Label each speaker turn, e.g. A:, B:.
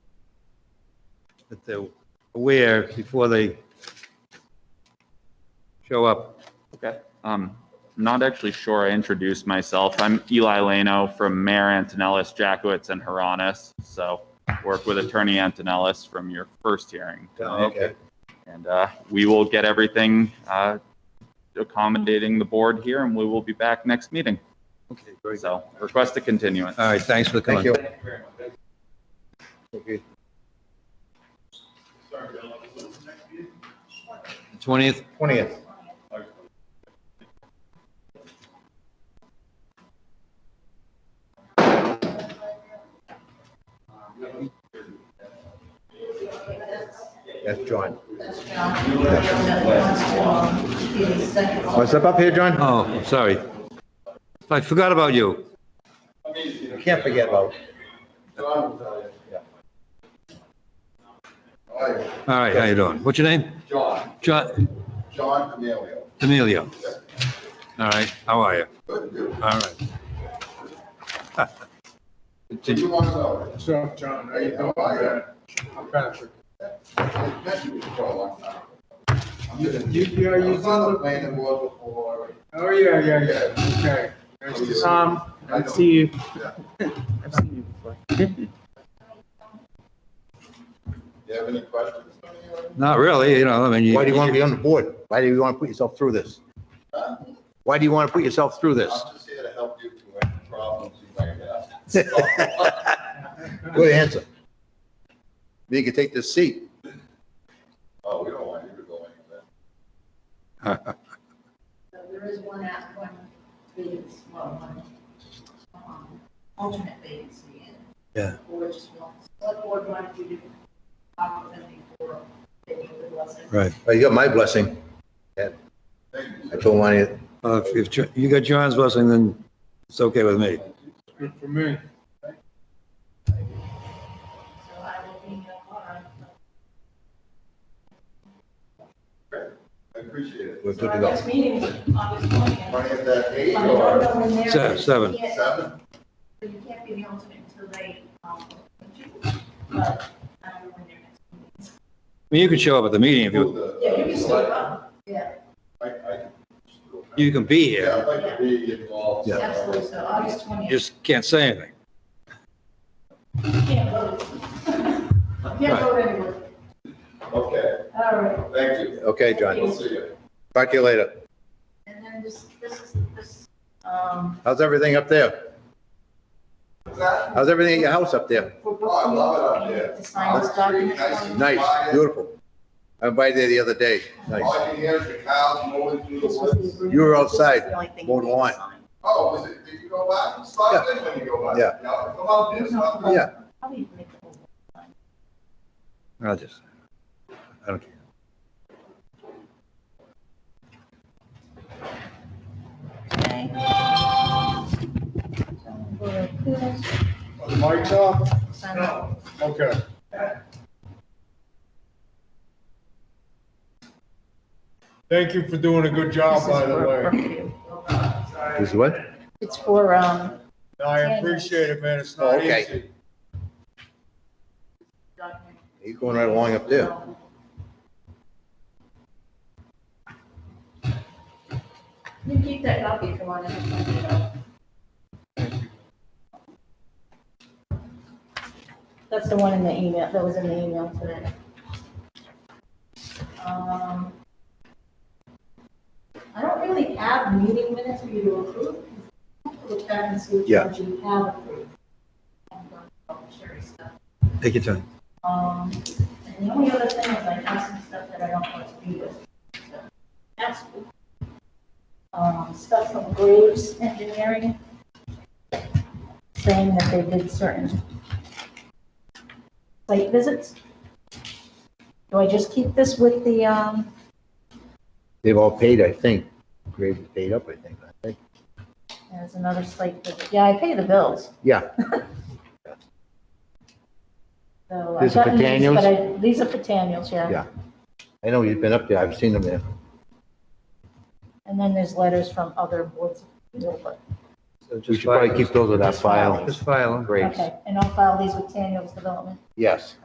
A: that they're aware before they show up.
B: Okay. Um, I'm not actually sure I introduced myself. I'm Eli Leno from Mayor Antonellis, Jackowitz, and Haranis. So work with Attorney Antonellis from your first hearing.
C: Oh,
B: tonight. And uh, we will get everything uh, accommodating the board here, and we will be back next meeting.
A: Okay, very good.
B: So request a continuance.
A: All right, thanks for
C: Thank
A: coming.
C: you.
A: Okay. Twentieth,
C: Twentieth. That's John. Want to step up here, John?
A: oh, I'm sorry. I forgot about you.
C: You Can't forget about.
A: All right, how you doing? What's your name?
D: John,
A: John
D: John Amelio.
A: Emilio. All right, how are you?
D: Good, good.
A: All right.
D: Did you want to know?
E: So, John, how you doing? I'm Patrick.
D: I've met you for a long time. I'm gonna-
E: You- you- are you
D: I was on the
E: doing-
D: planning board before.
E: Oh, yeah, yeah, yeah, okay. Nice to Tom, I see you.
D: Yeah.
E: I've seen you before.
D: You have any questions? for me or-
A: Not really, you know, I mean.
C: Why do you want to be on the board? Why do you want to put yourself through this?
D: Huh?
C: Why do you want to put yourself through this?
D: I'm just here to help you through any problems you might have.
C: Good answer. Then You can take this seat.
D: Oh, we don't want you to go anywhere.
F: So There is one app, one vacancy, well, one, um, alternate vacancy in.
A: Yeah.
F: Or just one, select board one, we do opportunity for, they would love it.
A: Right.
C: Well, Oh, You got my blessing.
D: Thank you.
C: I told Lonnie,
A: Uh, If if Jo- you got John's blessing, then it's okay with me.
E: Good for me.
F: So I will be, uh, all right.
D: I appreciate it.
C: we're
F: So
C: good to
F: our
C: go.
F: next meeting is August twentieth.
D: Running at that eight
F: I don't
D: or
F: know when they're-
A: Se- seven.
F: you can't-
D: seven?
F: You can't be the alternate until they, um, put you, but I don't know when their next meeting is.
A: I mean, you can show up at the meeting if you,
D: The-
F: Yeah, you can still come, yeah,
D: I, I can still-
A: you can be
D: Yeah,
A: here,
D: I'd like to be involved.
C: Yeah.
F: absolutely, so August
A: you
F: twentieth.
A: just can't say anything.
F: Can't vote. Can't vote anyway.
D: Okay,
F: All right.
D: thank you.
C: Okay, John.
D: We'll see you.
C: Talk to you later.
F: And then this, this is, this, um,
C: How's everything up there? How's everything at your house up there?
F: for both.
D: Oh, I love it
F: of you,
D: up there.
F: To sign this document.
C: Nice, beautiful. I went by there the other day.
D: All
C: Nice.
D: I can hear is the cows mowing through the
F: This was the
D: woods.
F: agreement.
C: You were
F: This is the
C: outside,
F: only thing
C: mowed
F: you need to
C: lawn.
F: sign.
D: Oh, was it, did you go by? You Stopped in when you go by?
C: Yeah.
D: Come out there, stop there.
C: Yeah.
F: Probably make the whole-
A: I'll just, I don't care.
F: Okay. So we're approved,
E: Mike's up?
F: sign it.
E: uh, Okay. Thank you for doing a good job,
F: This is
E: by the
F: for- for
E: way.
F: you.
C: Is what?
F: It's for, um,
E: I appreciate it, man, it's
C: Oh,
E: not
C: okay.
E: easy.
F: document.
C: He's going right along up there.
F: You can keep that copy if you want it. That's the one in the email, that was in the email today. Um, I don't really have meeting minutes for you to approve. You have to Look back and see which
C: Yeah.
F: ones you have approved. I'm going to Sherry stuff.
A: Take your time.
F: Um, and the only other thing is I have some stuff that I don't want to be with. So, That's, cool. um, stuff from Graves Engineering saying that they did certain site visits. Do I just keep this with the, um,
C: They've all paid, I think. Graves is paid up, I think. I think.
F: there's another site visit? Yeah, I pay the bills.
C: Yeah,
F: So
C: These
F: I've
C: are for
F: gotten these,
C: Daniels?
F: but I, these are for Daniels, yeah.
C: Yeah. I know you've been up there. I've seen them there.
F: And then there's letters from other boards. but-
C: We should probably keep those in our file.
A: Just file.
C: Graves.
F: Okay, and I'll file these with Daniels Development.
C: Yes.